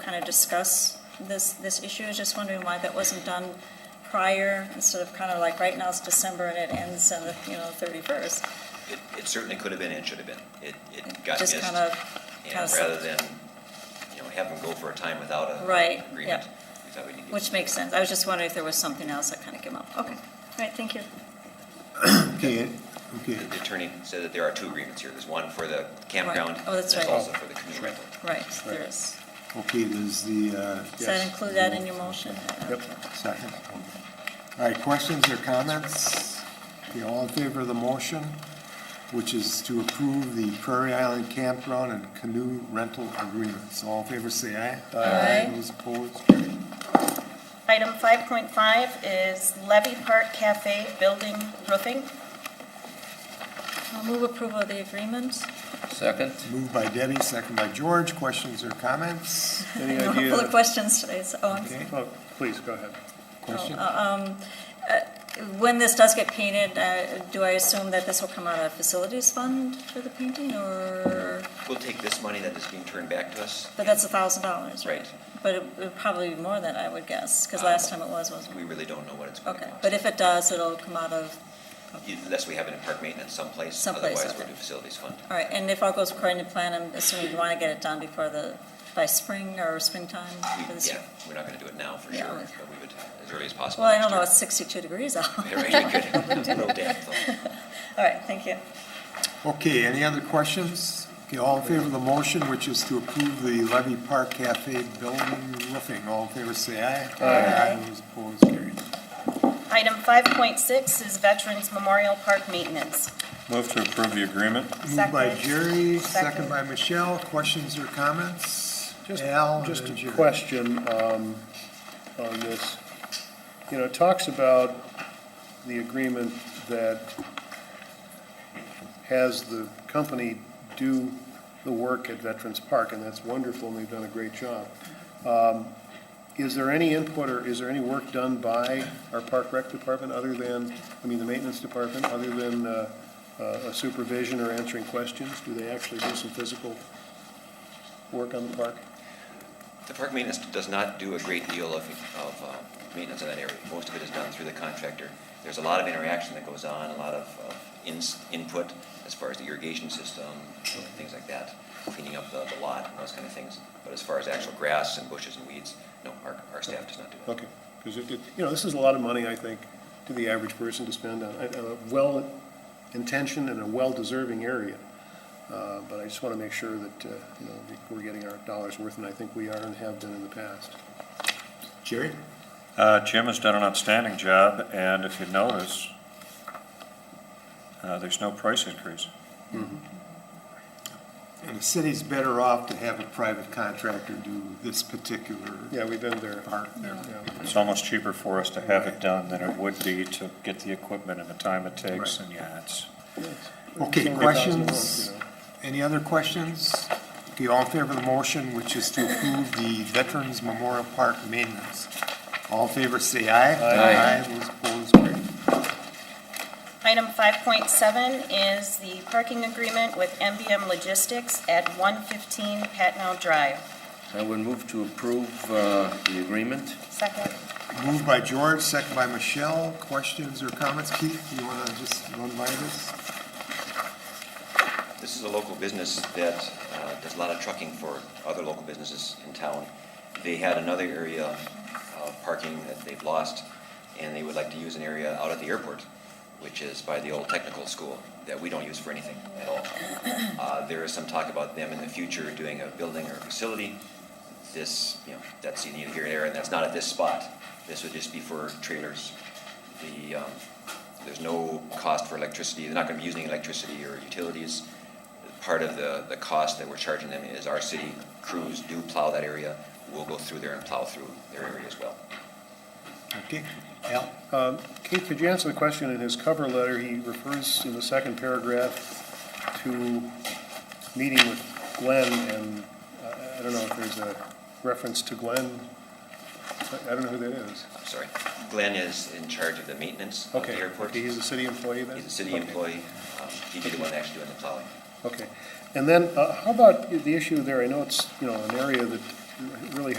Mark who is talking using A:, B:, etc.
A: kind of discuss this, this issue. I was just wondering why that wasn't done prior, instead of kind of like, right now it's December and it ends on the, you know, thirty-first.
B: It, it certainly could have been and should have been. It, it got missed.
A: Just kind of, kind
B: And
A: of
B: rather
A: slipped.
B: than, you know, have them go for a time without a
A: Right,
B: agreement,
A: yeah.
B: we thought we needed.
A: Which makes sense. I was just wondering if there was something else that kind of came up. Okay, all right, thank you.
C: Okay, okay.
B: The attorney said that there are two agreements here. There's one for the campground.
A: Oh, that's
B: and
A: right.
B: there's also for the canoe rental.
A: Right, there is.
C: Okay, there's the, uh.
A: Does that include that in your motion?
C: Yep, second. All right, questions or comments? Okay, all in favor of the motion, which is to approve the Prairie Island Campground and Canoe Rental Agreements. All in favor, say aye.
A: Aye.
C: Those opposed?
D: Item 5.5 is Levy Park Cafe Building Roofing.
A: I'll move approval of the agreement.
E: Second.
C: Moved by Debbie, second by George. Questions or comments?
F: Any
A: No, Full of
F: idea?
A: questions today, so, oh, I'm
C: Okay,
F: Oh, Please, go ahead.
C: question?
A: When this does get painted, uh, do I assume that this will come out of facilities fund for the painting, or,
B: We'll take this money that is being turned back to us.
A: but that's a thousand dollars, right?
B: Right. Uh,
A: But it would probably be more than I would guess, because last time it was, wasn't
B: We
A: it?
B: really don't know what it's going to
A: Okay,
B: cost.
A: but if it does, it'll come out of,
B: Unless we have it in park maintenance someplace.
A: Someplace,
B: Otherwise, we'll
A: okay.
B: do facilities fund.
A: all right, and if all goes according to plan, I'm assuming you want to get it done before the, by spring or springtime
B: We-
A: for this
B: Yeah,
A: year?
B: we're not going to do it now for
A: Yeah.
B: sure, but we would, as early as possible.
A: Well, I
B: next
A: don't know,
B: year.
A: it's sixty-two degrees out.
B: Yeah, right, we could. A little damp, though.
A: All right, thank you.
C: Okay, any other questions? Okay, all in favor of the motion, which is to approve the Levy Park Cafe building roofing. All in favor, say aye. Aye. Those opposed, carried.
D: Item 5.6 is Veterans Memorial Park Maintenance.
F: Move to approve the agreement.
C: Moved by
D: Second.
C: Jerry, second
D: Second.
C: by Michelle. Questions or comments?
F: Just,
C: Al and
F: just
C: then
F: a
C: Jerry.
F: question um, on this. You know, it talks about the agreement that has the company do the work at Veterans Park, and that's wonderful, and they've done a great job. Um, Is there any input or is there any work done by our Park Rec Department other than, I mean, the maintenance department, other than uh, uh, a supervision or answering questions? Do they actually do some physical work on the park?
B: The park maintenance does not do a great deal of, of uh, maintenance in that area. Most of it is done through the contractor. There's a lot of interaction that goes on, a lot of uh, ins- input as far as the irrigation system, things like that, cleaning up the the lot and those kind of things. But as far as actual grass and bushes and weeds, no, our, our staff does not do that.
F: Okay, because it, it- you know, this is a lot of money, I think, to the average person to spend on a- on a well-intentioned and a well-deserving area. Uh, But I just want to make sure that, uh, you know, that we're getting our dollars worth, and I think we are and have been in the past.
C: Jerry?
G: Uh, Jim has done an outstanding job, and if you notice, uh, there's no price increase.
C: And the city's better off to have a private contractor do this particular
F: Yeah, we've been there.
C: part there.
F: Yeah.
G: It's almost cheaper for us to have it done than it would be to get the equipment and the time it takes, and yeah, it's,
C: Okay,
F: It's
C: questions?
F: $100,000,
C: Any other questions? Okay, all in favor of the motion, which is to approve the Veterans Memorial Park maintenance. All in favor, say aye.
E: Aye.
C: Those opposed, carried.
D: Item 5.7 is the parking agreement with MBM Logistics at 115 Patnell Drive.
E: I would move to approve uh, the agreement.
D: Second.
C: Moved by George, second by Michelle. Questions or comments? Keith, you want to just run by this?
B: This is a local business that uh, does a lot of trucking for other local businesses in town. They had another area of parking that they've lost, and they would like to use an area out at the airport, which is by the old technical school, that we don't use for anything at all. Uh, There is some talk about them in the future doing a building or a facility. This, you know, that's neither here nor there, and that's not at this spot. This would just be for trailers. The, um, there's no cost for electricity, they're not gonna be using electricity or utilities part of the, the cost that we're charging them is our city crews do plow that area. We'll go through there and plow through their area as well.
C: Okay, Al?
F: yeah. Um, Keith, could you answer the question in his cover letter? He refers in the second paragraph to meeting with Glenn, and uh, I I don't know if there's a reference to Glenn. I I don't know who that is.
B: I'm sorry. Glenn is in charge of the maintenance of the
F: Okay,
B: airport.
F: okay, he's a city employee then?
B: He's a city
F: Okay,
B: employee. Um, He'd be the one actually doing the plowing.
F: Okay, and then, uh, how about the issue there, I know it's, you know, an area that really